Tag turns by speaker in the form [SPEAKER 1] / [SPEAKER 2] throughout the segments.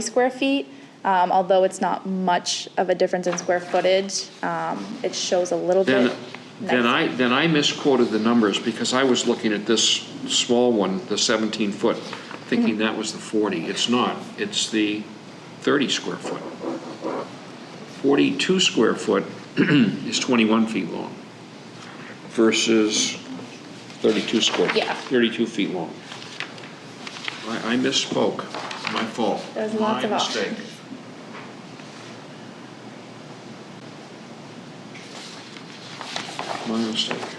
[SPEAKER 1] square feet. Um, Although it's not much of a difference in square footage, um, it shows a little bit.
[SPEAKER 2] Then, then
[SPEAKER 1] nicer.
[SPEAKER 2] I, then I misquoted the numbers, because I was looking at this small one, the 17-foot, thinking
[SPEAKER 1] Mm-hmm.
[SPEAKER 2] that was the 40. It's not, it's the 30 square foot. 42 square foot is 21 feet long versus 32 square.
[SPEAKER 1] Yeah.
[SPEAKER 2] 32 feet long. I, I misspoke, my fault.
[SPEAKER 1] There's lots of
[SPEAKER 2] My
[SPEAKER 1] options.
[SPEAKER 2] mistake. My mistake.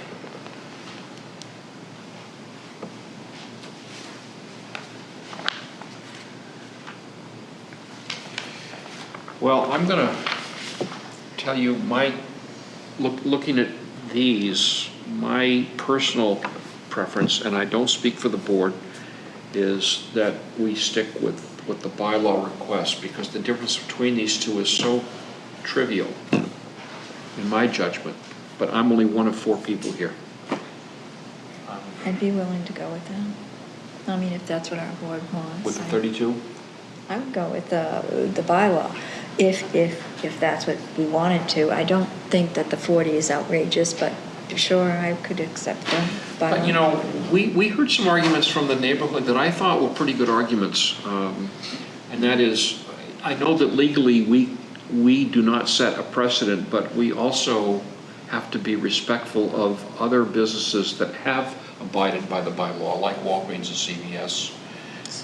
[SPEAKER 2] Well, I'm gonna tell you, my, look, looking at these, my personal preference, and I don't speak for the board, is that we stick with, with the bylaw request, because the difference between these two is so trivial, in my judgment, but I'm only one of four people here.
[SPEAKER 3] I'd be willing to go with that. I mean, if that's what our board wants.
[SPEAKER 2] With the
[SPEAKER 3] I-
[SPEAKER 2] thirty-two?
[SPEAKER 3] I would go with the, the bylaw, if, if, if that's what we wanted to. I don't think that the 40 is outrageous, but sure, I could accept the bylaw.
[SPEAKER 2] But, you know, we, we heard some arguments from the neighborhood that I thought were pretty good arguments. um, And that is, I know that legally, we, we do not set a precedent, but we also have to be respectful of other businesses that have abided by the bylaw, like Walgreens and CVS.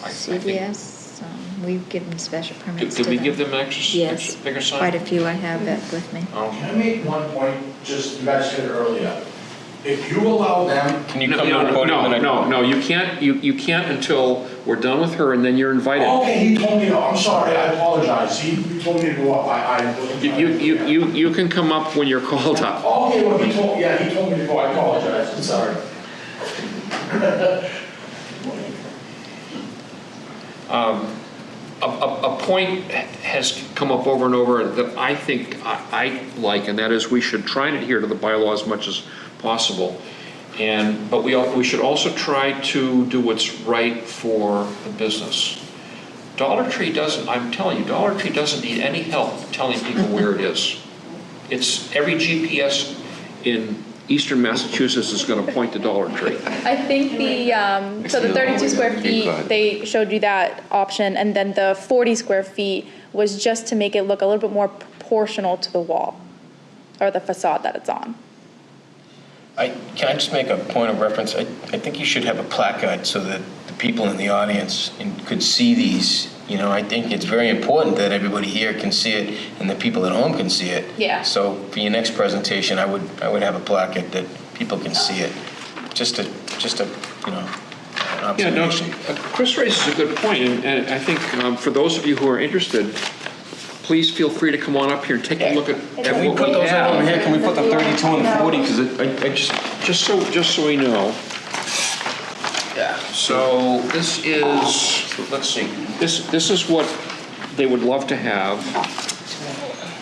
[SPEAKER 2] I- I think-
[SPEAKER 3] CVS, um, we've given special
[SPEAKER 2] Did
[SPEAKER 3] permits to
[SPEAKER 2] did
[SPEAKER 3] them.
[SPEAKER 2] we give them extra,
[SPEAKER 3] Yes,
[SPEAKER 2] extra bigger sign?
[SPEAKER 3] quite a few I have that with me.
[SPEAKER 4] Um,
[SPEAKER 2] Oh.
[SPEAKER 5] Can I make one point, just, you guys said earlier, if you allow them,
[SPEAKER 4] Can you come to the podium and
[SPEAKER 2] No, no,
[SPEAKER 4] I-
[SPEAKER 2] no, you can't, you, you can't until we're done with her and then you're invited.
[SPEAKER 5] okay, he told me, no, I'm sorry, I apologize, he he told me to go up, I, I wasn't.
[SPEAKER 2] You, you, you- you, you can come up when you're called up.
[SPEAKER 5] Okay, well, he told, yeah, he told me to go, I apologize, I'm sorry.
[SPEAKER 2] a, a, a point has come up over and over that I think I, I like, and that is we should try and adhere to the bylaw as much as possible. And, but we, al- we should also try to do what's right for the business. Dollar Tree doesn't, I'm telling you, Dollar Tree doesn't need any help telling people where it is. It's, every GPS in eastern Massachusetts is gonna point to Dollar Tree.
[SPEAKER 1] I think the, um, so the 32 square feet, they showed you that option, and then the 40 square feet was just to make it look a little bit more proportional to the wall, or the facade that it's on.
[SPEAKER 4] I, can I just make a point of reference? I, I think you should have a placard so that the people in the audience in- could see these. You know, I think it's very important that everybody here can see it and the people at home can see it.
[SPEAKER 1] Yeah.
[SPEAKER 4] So for your next presentation, I would, I would have a placard that people can see it. Just a, just a, you know, an
[SPEAKER 2] Yeah, no,
[SPEAKER 4] observation.
[SPEAKER 2] uh, Chris raises a good point, and- and I think um, for those of you who are interested, please feel free to come on up here and take a look at at
[SPEAKER 4] Can we
[SPEAKER 2] what
[SPEAKER 4] put
[SPEAKER 2] we
[SPEAKER 4] those out over
[SPEAKER 2] have.
[SPEAKER 4] here? Can we put the 32 and 40? Because it,
[SPEAKER 2] I I just, just so, just so we know. Yeah. So this is, let's see, this, this is what they would love to have.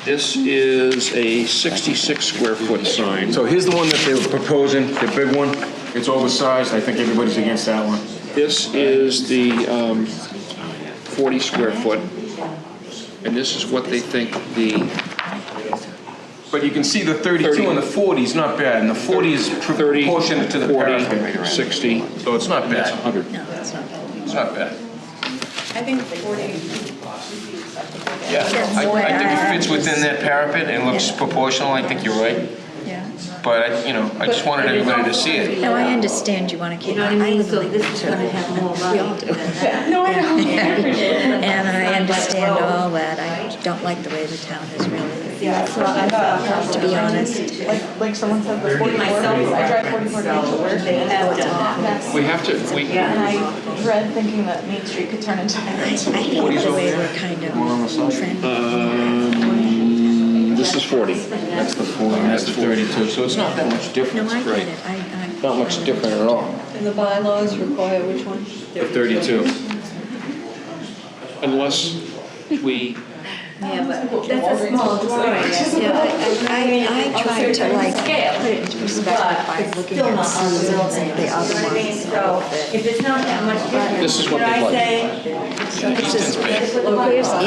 [SPEAKER 2] This is a 66 square foot sign.
[SPEAKER 6] So here's the one that they were proposing, the big one. It's oversized. I think everybody's against that one.
[SPEAKER 2] This is the um, 40 square foot, and this is what they think the
[SPEAKER 6] But you can see the 32 and the 40 is not bad, and the 40 is
[SPEAKER 2] 30,
[SPEAKER 6] proportionate to the
[SPEAKER 2] 40,
[SPEAKER 6] parapet.
[SPEAKER 2] 60,
[SPEAKER 6] So it's not bad.
[SPEAKER 2] 100.
[SPEAKER 3] No, it's not bad.
[SPEAKER 6] It's not bad.
[SPEAKER 7] I think 40 would be acceptable.
[SPEAKER 4] yeah,
[SPEAKER 3] That's
[SPEAKER 4] I,
[SPEAKER 3] what
[SPEAKER 4] I think
[SPEAKER 3] I-
[SPEAKER 4] it fits within that parapet and looks proportional. I think you're right.
[SPEAKER 3] Yeah.
[SPEAKER 4] But, I- you know, I just wanted everybody to see it.
[SPEAKER 3] No, I understand you want to
[SPEAKER 7] You
[SPEAKER 3] keep.
[SPEAKER 7] know what I mean?
[SPEAKER 3] live in
[SPEAKER 7] So
[SPEAKER 3] Lake
[SPEAKER 7] this is gonna have more
[SPEAKER 3] We all
[SPEAKER 7] volume
[SPEAKER 3] do.
[SPEAKER 7] than that. No, I
[SPEAKER 3] And I understand all that. I don't like the way the town is really,
[SPEAKER 8] Yeah, so I thought,
[SPEAKER 3] to be honest.
[SPEAKER 8] like, like someone said, the 44, I drive 44 days to work, and
[SPEAKER 2] We have to, we,
[SPEAKER 8] I dread thinking that Main Street could turn into.
[SPEAKER 3] I hate the way we're kind of
[SPEAKER 6] Uh,
[SPEAKER 2] this is 40.
[SPEAKER 6] That's the 40, that's the 32, so it's not that much
[SPEAKER 3] No,
[SPEAKER 6] difference.
[SPEAKER 3] I get it. I, I.
[SPEAKER 6] Not much different at all.
[SPEAKER 7] And the bylaws require which one?
[SPEAKER 6] The 32.
[SPEAKER 2] Unless we
[SPEAKER 8] Yeah, but that's a small drawing.
[SPEAKER 3] Yeah, I, I, I tried to like put it into perspective by looking at some of the other ones.
[SPEAKER 8] So if it's not that much different.
[SPEAKER 2] This is what they like.
[SPEAKER 8] Did I say?
[SPEAKER 3] It's just-
[SPEAKER 8] Put the
[SPEAKER 3] Here's
[SPEAKER 8] bylaw.